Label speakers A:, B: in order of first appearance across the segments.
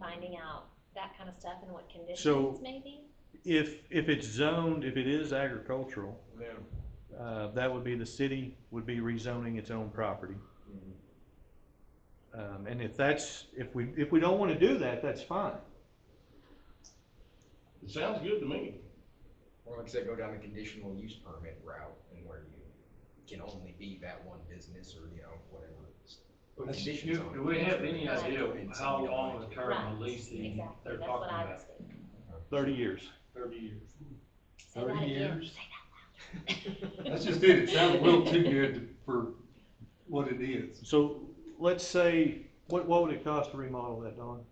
A: finding out that kind of stuff and what
B: So-
A: conditions maybe?
B: If, if it's zoned, if it is agricultural,
C: Yeah.
B: uh, that would be, the city would be rezoning its own property.
D: Mm-hmm.
B: Um, and if that's, if we, if we don't wanna do that, that's fine.
C: It sounds good to me.
D: Or like I said, go down the conditional use permit route and where you can only be that one business or, you know, whatever. Put conditions
E: Do
D: on
E: do
D: it.
E: we have any idea
D: And say
E: how
D: you don't
E: long
D: like
E: the
D: it.
E: term of
A: Right,
E: leasing
A: Exactly,
E: they're
A: that's what
E: talking
A: I
E: about?
A: was thinking.
B: Thirty years.
E: Thirty years.
A: Say that
E: 30
A: again.
E: years?
F: That's just it, it sounds a little too good to- for what it is.
B: So let's say, what, what would it cost to remodel that, Don?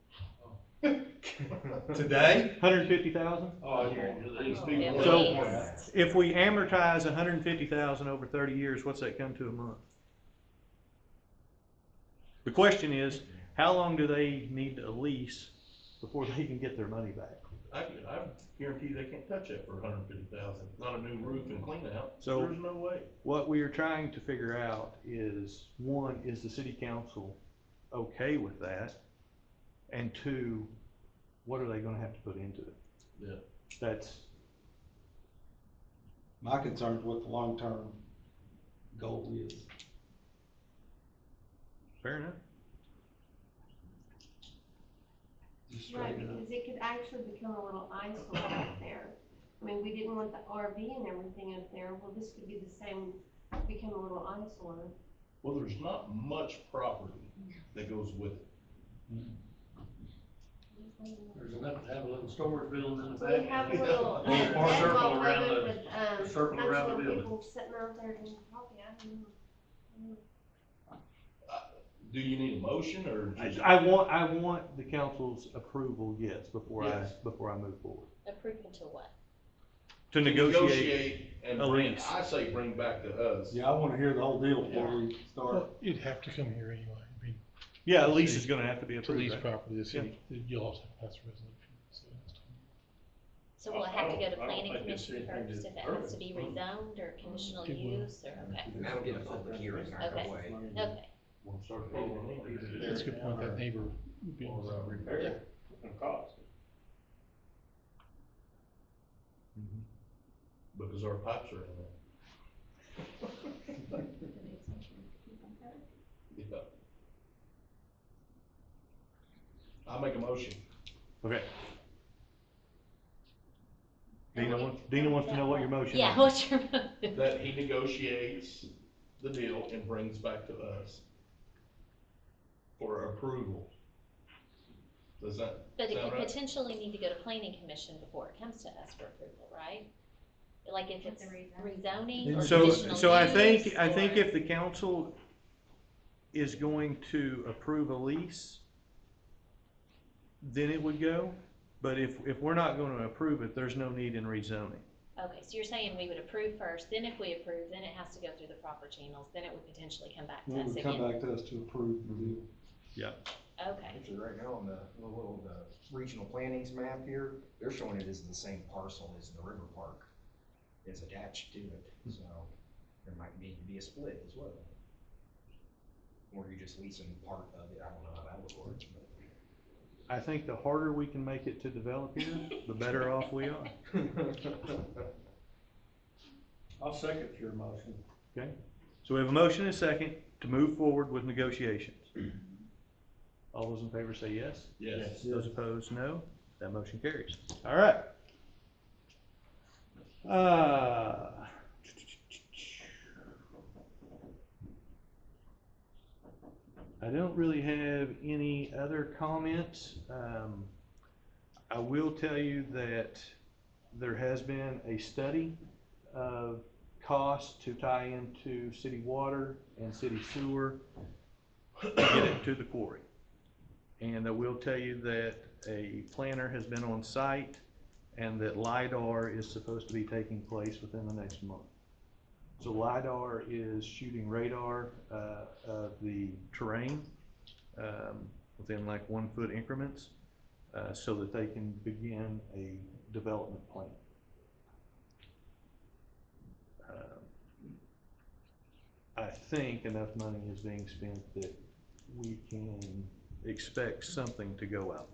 F: Today?
B: Hundred and fifty thoush?
E: Oh, you want to lease people?
A: At
B: So-
A: least.
B: If we amortize $150,000 over thirty years, what's that come to a month? The question is, how long do they need a lease before they can get their money back?
C: I, could- I guarantee they can't touch that for a hundred and fifty thousand, not a new roof and clean out,
B: So-
C: there's no way.
B: What we are trying to figure out is, one, is the city council okay with that? And two, what are they gonna have to put into it?
C: Yeah.
B: That's,
F: My concern is what the long-term goal is.
B: fair enough.
F: Just
G: Right,
F: straighten it up.
G: because it could actually become a little eyesore out there. I mean, we didn't want the RV and everything up there, well, this could be the same, become a little eyesore.
C: Well, there's not much property that goes with it.
E: There's enough to have a little storage building in the
G: So
E: back.
G: we have a little, uh,
E: Yeah.
G: that's all
E: Circle around
G: covered
E: the-
G: with, um,
E: circle
G: that's
E: around the
G: little
E: building.
G: people sitting out there and talking, I don't know. I don't know.
C: Do you need a motion or
B: I,
C: just?
B: I want, I want the council's approval, yes, before I,
C: Yes.
B: before I move forward.
A: Approval to what?
B: To negotiate.
C: and
B: a
C: bring,
B: lease.
C: I say bring back to us.
F: Yeah, I wanna hear the whole deal before we start.
H: Well, you'd have to come here anyway, I mean,
B: Yeah, a lease is gonna have to be
H: to
B: approved.
H: lease
B: right?
H: property, the city, you'll also have to pass a resolution, so that's.
A: So we'll
C: I- I
A: have to go
C: don't-
A: to
C: I don't
A: planning
C: think it's
A: commission
C: anything to
A: first if it
C: urban.
A: has to be rezoned or conditional
H: It will.
A: use or, okay,
D: And that'll get a public hearing either
A: Okay.
D: way.
A: okay.
C: We'll start paying it.
H: That's a good point, that neighbor would be.
C: Or, uh, repair it and cost. Because our pipes are in there. Yeah. I make a motion.
B: Okay.
A: And
B: Dina
A: we-
B: wants, Dina wants to know what your motion is.
A: Yeah, what's your motion?
C: that he negotiates the deal and brings back to us for approval. Does that
A: But it
C: sound
A: could
C: right?
A: potentially need to go to planning commission before it comes to us for approval, right? Like if it's rezoning or
B: So,
A: conditional
B: so I think,
A: use
B: I think
A: or-
B: if the council is going to approve a lease, then it would go, but if, if we're not gonna approve it, there's no need in rezoning.
A: Okay, so you're saying we would approve first, then if we approve, then it has to go through the proper channels, then it would potentially come back to
F: It
A: us
F: would come
A: again?
F: back to us to approve the deal.
A: Okay.
D: Actually, right now on the the little, the regional plannings map here, they're showing it as the same parcel as the river park is attached to it, so there might need to be a split as well. Or you're just leasing part of it, I don't know how that would work, but.
B: I think the harder we can make it to develop here, the better off we are.
E: I'll second your motion.
B: So we have a motion and a second to move forward with negotiations. All those in favor say yes?
C: Yes.
B: Those opposed, no. That motion carries. All right. Uh, I don't really have any other comments. Um, I will tell you that there has been a study of costs to tie into city water and city sewer to get it to the quarry. And I will tell you that a planner has been on site and that LiDAR is supposed to be taking place within the next month. So LiDAR is shooting radar uh, of the terrain um, within like one-foot increments uh, so that they can begin a development plan. Um, I think enough money is being spent that we can expect something to go out.